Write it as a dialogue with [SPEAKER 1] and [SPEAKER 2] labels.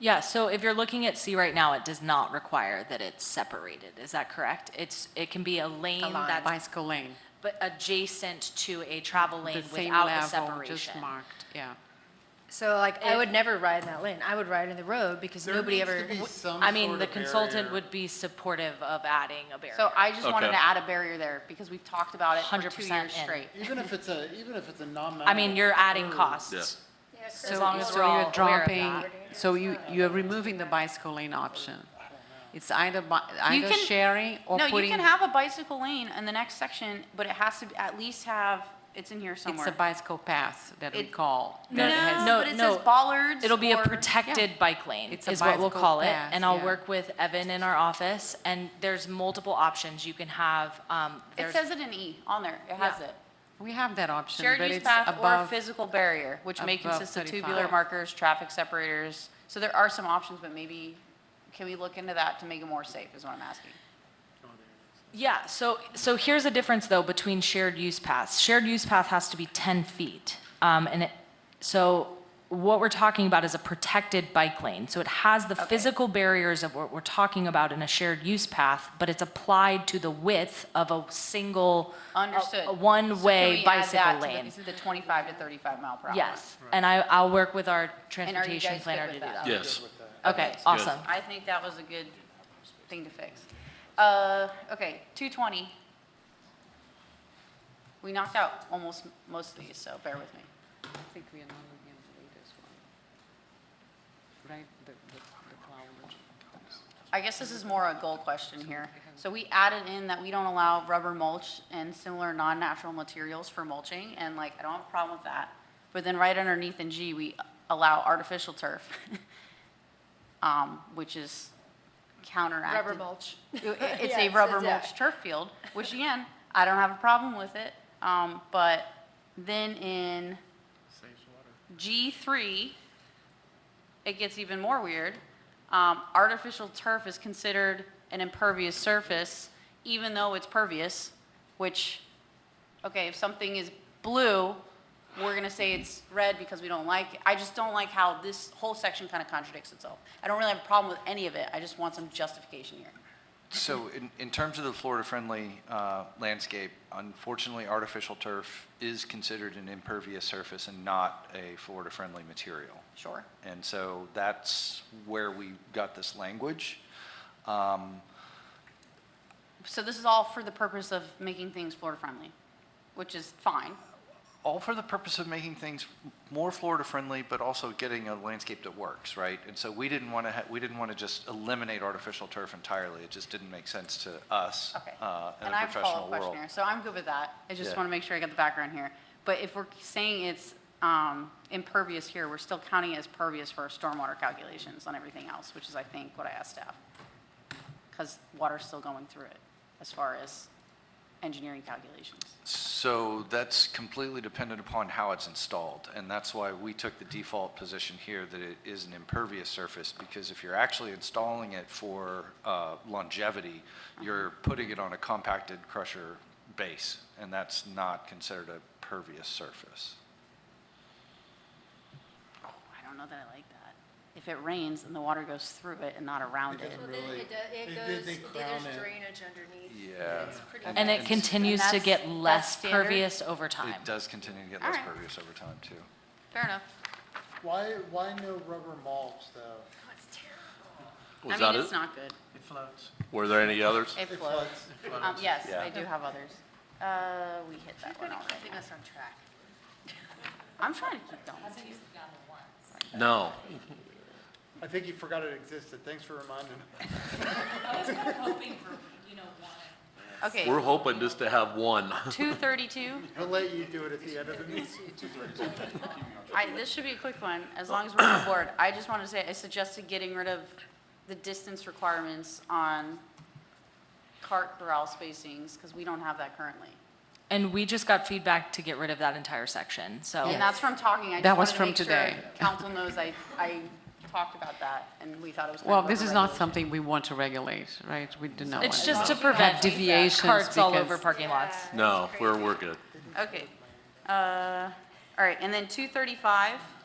[SPEAKER 1] Yeah, so if you're looking at C right now, it does not require that it's separated, is that correct? It's, it can be a lane
[SPEAKER 2] Along
[SPEAKER 1] that's
[SPEAKER 2] bicycle lane,
[SPEAKER 1] but adjacent to a travel
[SPEAKER 2] the
[SPEAKER 1] lane
[SPEAKER 2] same
[SPEAKER 1] without a
[SPEAKER 2] level, just
[SPEAKER 1] separation.
[SPEAKER 2] marked, yeah.
[SPEAKER 3] So like, I would never ride in that lane. I would ride in the road because
[SPEAKER 4] There
[SPEAKER 3] nobody
[SPEAKER 4] needs to
[SPEAKER 3] ever.
[SPEAKER 4] be some
[SPEAKER 1] I mean,
[SPEAKER 4] sort
[SPEAKER 1] the
[SPEAKER 4] of
[SPEAKER 1] consultant
[SPEAKER 4] barrier.
[SPEAKER 1] would be supportive of adding a barrier.
[SPEAKER 5] So I just wanted
[SPEAKER 6] Okay.
[SPEAKER 5] to add a barrier there because we've talked about it for two
[SPEAKER 1] 100%
[SPEAKER 5] years
[SPEAKER 1] in.
[SPEAKER 5] straight.
[SPEAKER 4] Even if it's a, even if it's a non-mountable.
[SPEAKER 1] I mean, you're adding
[SPEAKER 6] Yeah.
[SPEAKER 1] costs.
[SPEAKER 3] So
[SPEAKER 2] So,
[SPEAKER 1] long as
[SPEAKER 2] so
[SPEAKER 1] we're
[SPEAKER 2] you're
[SPEAKER 1] all aware of
[SPEAKER 2] dropping,
[SPEAKER 1] that.
[SPEAKER 2] so you, you are removing the bicycle lane option. It's either, bi-
[SPEAKER 5] You
[SPEAKER 2] either
[SPEAKER 5] can-
[SPEAKER 2] sharing or
[SPEAKER 5] No,
[SPEAKER 2] putting.
[SPEAKER 5] you can have a bicycle lane in the next section, but it has to be- at least have, it's in here
[SPEAKER 2] It's a
[SPEAKER 5] somewhere.
[SPEAKER 2] bicycle path that we
[SPEAKER 5] It-
[SPEAKER 2] call.
[SPEAKER 1] No,
[SPEAKER 2] that has-
[SPEAKER 1] no,
[SPEAKER 5] But it says
[SPEAKER 1] no.
[SPEAKER 5] bollards
[SPEAKER 1] It'll be a
[SPEAKER 5] or-
[SPEAKER 1] protected bike lane,
[SPEAKER 2] It's a
[SPEAKER 1] is what we'll
[SPEAKER 2] bicycle
[SPEAKER 1] call it.
[SPEAKER 2] path,
[SPEAKER 1] And I'll
[SPEAKER 2] yeah.
[SPEAKER 1] work with Evan in our office, and there's multiple options. You can have, um,
[SPEAKER 5] It
[SPEAKER 1] there's,
[SPEAKER 5] says it in E on there. It has
[SPEAKER 1] Yeah.
[SPEAKER 5] it.
[SPEAKER 2] We have that option,
[SPEAKER 5] Shared
[SPEAKER 2] but
[SPEAKER 5] use
[SPEAKER 2] it's
[SPEAKER 5] path or
[SPEAKER 2] above,
[SPEAKER 5] physical barrier, which may
[SPEAKER 2] above
[SPEAKER 5] consist of
[SPEAKER 2] 35.
[SPEAKER 5] tubular markers, traffic separators. So there are some options, but maybe, can we look into that to make it more safe is what I'm asking.
[SPEAKER 1] yeah, so, so here's the difference, though, between shared use paths. Shared use path has to be 10 feet. Um, And it, so what we're talking about is a protected bike lane. So it has the physical barriers of what we're talking about in a shared use path, but it's applied to the width of a single, a-
[SPEAKER 5] Understood.
[SPEAKER 1] a
[SPEAKER 5] Can
[SPEAKER 1] one-way
[SPEAKER 5] we add that
[SPEAKER 1] bicycle
[SPEAKER 5] to the-
[SPEAKER 1] lane.
[SPEAKER 5] To the 25 to 35 mile per hour.
[SPEAKER 1] Yes, and I, I'll work with our
[SPEAKER 5] And are you
[SPEAKER 1] transportation
[SPEAKER 5] guys
[SPEAKER 1] planner
[SPEAKER 5] good
[SPEAKER 1] to do
[SPEAKER 5] with
[SPEAKER 1] that.
[SPEAKER 5] that?
[SPEAKER 6] Yes.
[SPEAKER 1] Okay, awesome.
[SPEAKER 5] I think that was a good thing to fix. Uh, okay, two twenty. We knocked out almost most of these, so bear with me.
[SPEAKER 2] I think we are not going to do this one. Right, the, the, the cloud.
[SPEAKER 5] I guess this is more a goal question here. So we added in that we don't allow rubber mulch and similar non-natural materials for mulching, and like, I don't have a problem with that. But then right underneath in G, we allow artificial turf, um, which is counteracted.
[SPEAKER 3] Rubber mulch.
[SPEAKER 5] It- It's
[SPEAKER 3] Yeah,
[SPEAKER 5] a
[SPEAKER 3] it
[SPEAKER 5] rubber
[SPEAKER 3] says that.
[SPEAKER 5] mulch turf field, which again, I don't have a problem with it. Um, but then in G three, it gets even more weird. Um, artificial turf is considered an impervious surface, even though it's pervious, which, okay, if something is blue, we're gonna say it's red because we don't like it. I just don't like how this whole section kind of contradicts itself. I don't really have a problem with any of it. I just want some justification here.
[SPEAKER 7] So in, in terms of the Florida-friendly uh, landscape, unfortunately, artificial turf is considered an impervious surface and not a Florida-friendly material.
[SPEAKER 5] Sure.
[SPEAKER 7] And so that's where we got this language. Um,
[SPEAKER 5] So this is all for the purpose of making things Florida-friendly, which is fine.
[SPEAKER 7] All for the purpose of making things more Florida-friendly, but also getting a landscape that works, right? And so we didn't want to, we didn't want to just eliminate artificial turf entirely. It just didn't make sense to us
[SPEAKER 5] Okay.
[SPEAKER 7] uh, in
[SPEAKER 5] And
[SPEAKER 7] a
[SPEAKER 5] I have a
[SPEAKER 7] professional
[SPEAKER 5] follow-up
[SPEAKER 7] world.
[SPEAKER 5] question here, so I'm good with that. I just
[SPEAKER 7] Yeah.
[SPEAKER 5] want to make sure I got the background here. But if we're saying it's um, impervious here, we're still counting it as pervious for our stormwater calculations on everything else, which is, I think, what I asked staff. Because water's still going through it as far as engineering calculations.
[SPEAKER 7] So that's completely dependent upon how it's installed, and that's why we took the default position here that it is an impervious surface, because if you're actually installing it for uh, longevity, you're putting it on a compacted crusher base, and that's not considered a pervious surface.
[SPEAKER 5] Oh, I don't know that I like that. If it rains, then the water goes through it and not around it.
[SPEAKER 3] Well, then it does,
[SPEAKER 4] They
[SPEAKER 3] it
[SPEAKER 4] did-
[SPEAKER 3] goes,
[SPEAKER 4] they crown
[SPEAKER 3] there's
[SPEAKER 4] it.
[SPEAKER 3] drainage underneath.
[SPEAKER 7] Yeah.
[SPEAKER 3] It's pretty
[SPEAKER 1] And it
[SPEAKER 7] And-
[SPEAKER 1] continues to
[SPEAKER 5] that's-
[SPEAKER 1] get less
[SPEAKER 5] that's standard?
[SPEAKER 1] pervious over time.
[SPEAKER 7] It does continue to get
[SPEAKER 5] All
[SPEAKER 7] less
[SPEAKER 5] right.
[SPEAKER 7] pervious over time, too.
[SPEAKER 5] Fair enough.
[SPEAKER 4] Why, why no rubber mulch, though?
[SPEAKER 6] Was
[SPEAKER 5] I
[SPEAKER 6] that
[SPEAKER 5] mean, it's
[SPEAKER 6] it?
[SPEAKER 5] not good.
[SPEAKER 4] It floats.
[SPEAKER 6] Were there any others?
[SPEAKER 5] It
[SPEAKER 4] It
[SPEAKER 5] flows.
[SPEAKER 4] floats. It floats.
[SPEAKER 5] Um, yes,
[SPEAKER 6] Yeah.
[SPEAKER 5] I do have others. Uh, we hit that one already.
[SPEAKER 3] keeping us on track.
[SPEAKER 5] I'm trying to keep going.
[SPEAKER 6] No.
[SPEAKER 4] I think you forgot it existed. Thanks for reminding me.
[SPEAKER 6] We're
[SPEAKER 5] Okay,
[SPEAKER 6] hoping just to have one.
[SPEAKER 5] two thirty-two.
[SPEAKER 4] I'll let you do it at the end of the meeting.
[SPEAKER 5] I, this should be a quick one, as long as we're on board. I just want to say, I suggested getting rid of the distance requirements on cart corral spacings, because we don't have that currently.
[SPEAKER 1] And we just got feedback to get rid of that entire section, so.
[SPEAKER 5] And that's from talking, I
[SPEAKER 2] That was
[SPEAKER 5] just
[SPEAKER 2] from
[SPEAKER 5] wanted to make
[SPEAKER 2] today.
[SPEAKER 5] sure council knows I, I talked about that, and we thought it was kind
[SPEAKER 2] Well,
[SPEAKER 5] of
[SPEAKER 2] this is not
[SPEAKER 5] overregulated.
[SPEAKER 2] something we want to regulate, right? We do not.
[SPEAKER 1] It's
[SPEAKER 2] want
[SPEAKER 1] just to
[SPEAKER 2] Have
[SPEAKER 1] prevent
[SPEAKER 2] deviations
[SPEAKER 1] carts all
[SPEAKER 2] because-
[SPEAKER 1] over parking lots.
[SPEAKER 6] No, we're, we're good.
[SPEAKER 5] Okay. Uh, All right, and then 235,